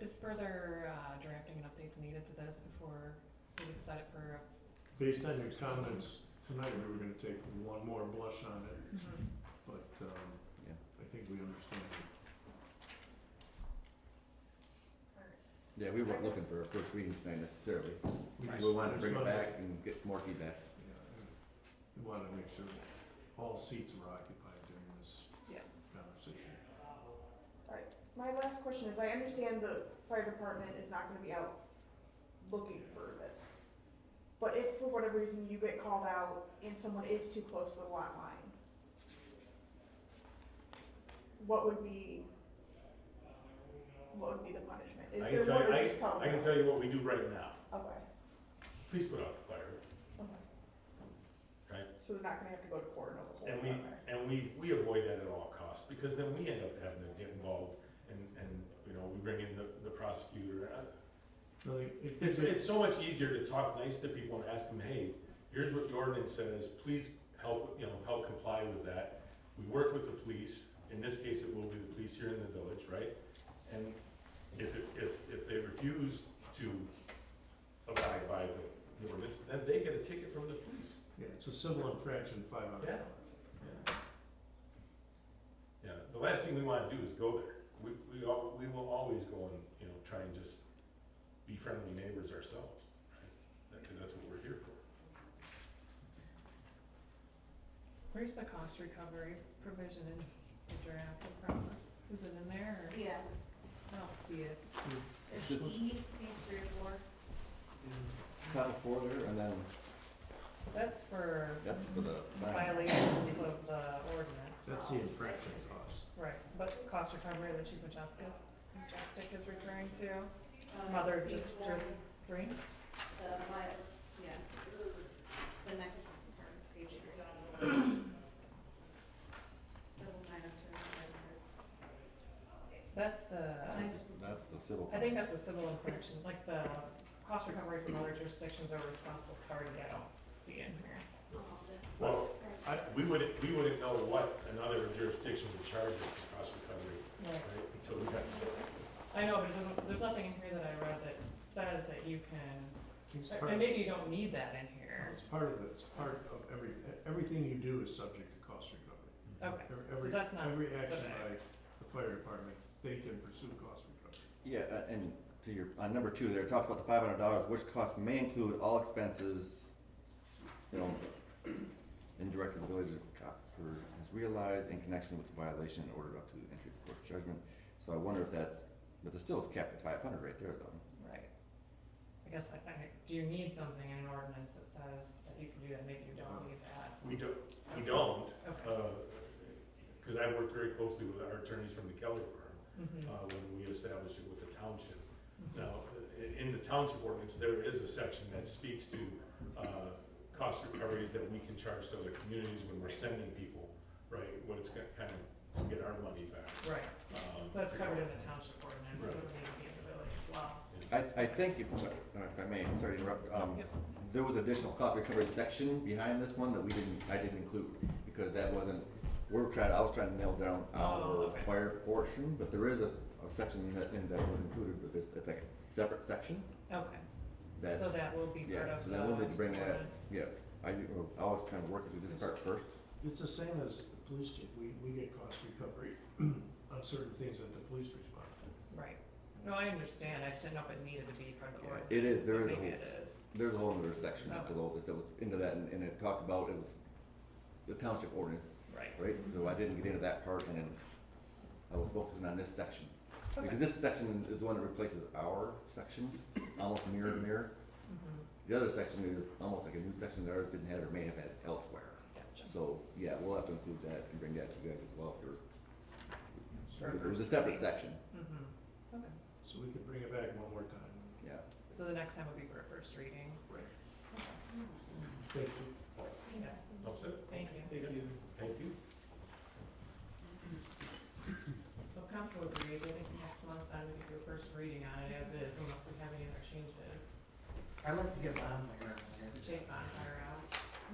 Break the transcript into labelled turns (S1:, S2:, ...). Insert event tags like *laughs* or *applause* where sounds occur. S1: is further uh, drafting and updates needed to this before we decide it for?
S2: Based on your comments tonight, we were gonna take one more blush on it,
S1: Mm-hmm.
S2: but, um,
S3: Yeah.
S2: I think we understand.
S3: Yeah, we weren't looking for a first reading tonight necessarily, just,
S2: We just-
S3: we wanted to
S2: just
S3: bring it
S2: wanted-
S3: back and get more feedback.
S2: Yeah, and We wanna make sure that all seats were occupied during this
S1: Yeah.
S2: conversation.
S4: My last question is, I understand the fire department is not gonna be out looking for this. But if for whatever reason you get called out and someone is too close to the lot line, what would be, what would be the punishment? Is
S5: I can
S4: there
S5: tell
S4: more
S5: you,
S4: to
S5: I,
S4: just tell
S5: I can
S4: them?
S5: tell you what we do right now.
S4: Okay,
S5: Please put out the fire,
S4: okay.
S5: right?
S4: So they're not gonna have to go to court and overhaul
S5: And
S4: it,
S5: we,
S4: okay.
S5: and we, we avoid that at all costs, because then we end up having to get involved and, and, you know, we bring in the, the prosecutor. Uh,
S2: No, they- it-
S5: *laughs* It's,
S2: it-
S5: it's so much easier to talk nice to people and ask them, hey, here's what the ordinance says, please help, you know, help comply with that. We work with the police, in this case, it will be the police here in the village, right? And if, it- if, if they refuse to abide by the- the ordinance, then they get a ticket from the police.
S2: Yeah, it's a civil infraction, five hundred
S5: Yeah.
S2: dollars.
S5: Yeah. Yeah, the last thing we wanna do is go there. We, we all, we will always go and, you know, try and just be friendly neighbors ourselves, right? Cause that's what we're here for.
S1: Where's the cost recovery provision in the draft of promise? Is it in there or?
S6: Yeah,
S1: I don't see it.
S6: it's
S3: Just-
S6: E, page three or four.
S3: Top of order, and then
S1: That's for
S3: that's for the.
S1: violations of the ordinance.
S2: That's the infraction cost.
S1: Right, but cost recovery that Chief Majestic, Majestic is referring to, mother just, just three?
S6: The miles, yeah. The next part, page three. Civil nine oh two.
S1: That's the,
S3: That's the civil.
S1: I think that's a civil infraction, like the cost recovery from other jurisdictions are responsible party, I don't see in here.
S5: Well, I, we wouldn't, we wouldn't know what another jurisdiction would charge us for cost recovery,
S1: Right.
S5: right, until we got to
S1: I know, but it doesn't, there's nothing in here that I read that says that you can,
S2: It's
S1: and
S2: part,
S1: maybe you don't need that in here.
S2: it's part of it, it's part of every, everything you do is subject to cost recovery.
S1: Okay,
S2: Every-
S1: so
S2: every-
S1: that's not
S2: Every action
S1: specific.
S2: by the fire department, they can pursue cost recovery.
S3: Yeah, uh, and to your, on number two there, it talks about the five hundred dollars, which cost may include all expenses, you know, indirect to the village of Copper has realized in connection with the violation in order up to the entry of court judgment. So I wonder if that's, but the still it's capped at five hundred right there though.
S1: Right. I guess, I, I, do you need something in an ordinance that says that you can do that, maybe you don't need that?
S5: We don't, we don't,
S1: Okay.
S5: uh, cause I worked very closely with our attorneys from the Kelly firm,
S1: Mhm.
S5: uh, when we established it with the township. Now, i- in the township ordinance, there is a section that speaks to, uh, cost recoveries that we can charge to other communities when we're sending people, right? What it's got, kind of, to get our money back.
S1: Right,
S5: Um,
S1: so that's covered in the township ordinance, it
S5: Right.
S1: would need to be in the village as well.
S3: I, I think if, if I may, sorry to interrupt, um,
S1: Yep.
S3: there was additional cost recovery section behind this one that we didn't, I didn't include, because that wasn't, we're trying, I was trying to nail down
S1: Oh,
S3: our
S1: okay.
S3: fire portion, but there is a, a section that, and that was included with this, it's like a separate section
S1: Okay, so
S3: that,
S1: that will be part
S3: yeah,
S1: of
S3: so
S1: the
S3: then we'll
S1: ordinance.
S3: need to bring that, yeah. I, I was kind of working through this part first,
S2: It's the same as the police chief, we, we get cost recovery *clears throat* on certain things that the police respond to.
S1: Right, no, I understand, I just didn't know if it needed to be part of the
S3: Yeah,
S1: ordinance.
S3: it is, there
S1: but
S3: is a
S1: Maybe
S3: whole-
S1: it is,
S3: there's a whole other section
S1: Okay.
S3: below this that was into that, and, and it talked about, it was the township ordinance,
S1: right,
S3: right, so I didn't get into that part, and then I was focusing on this section. Because
S1: okay.
S3: this section is the one that replaces our section, almost mirror to mirror.
S1: Mhm.
S3: The other section is almost like a new section that ours didn't have or may have had elsewhere.
S1: Gotcha.
S3: So, yeah, we'll have to include that and bring that to you guys as well for,
S1: For
S3: there's a
S1: first
S3: separate
S1: reading.
S3: section,
S1: Mhm. Okay,
S2: So we could bring it back one more time.
S3: yeah.
S1: so the next time would be for a first reading.
S2: Right. Thank you.
S1: Yeah,
S5: That's it?
S1: thank you.
S5: Thank you. Thank you.
S1: So council agrees, I think next month, I'm gonna do a first reading on it as is, unless we have any other changes.
S7: I'd like to get on there.
S1: Jake on fire out.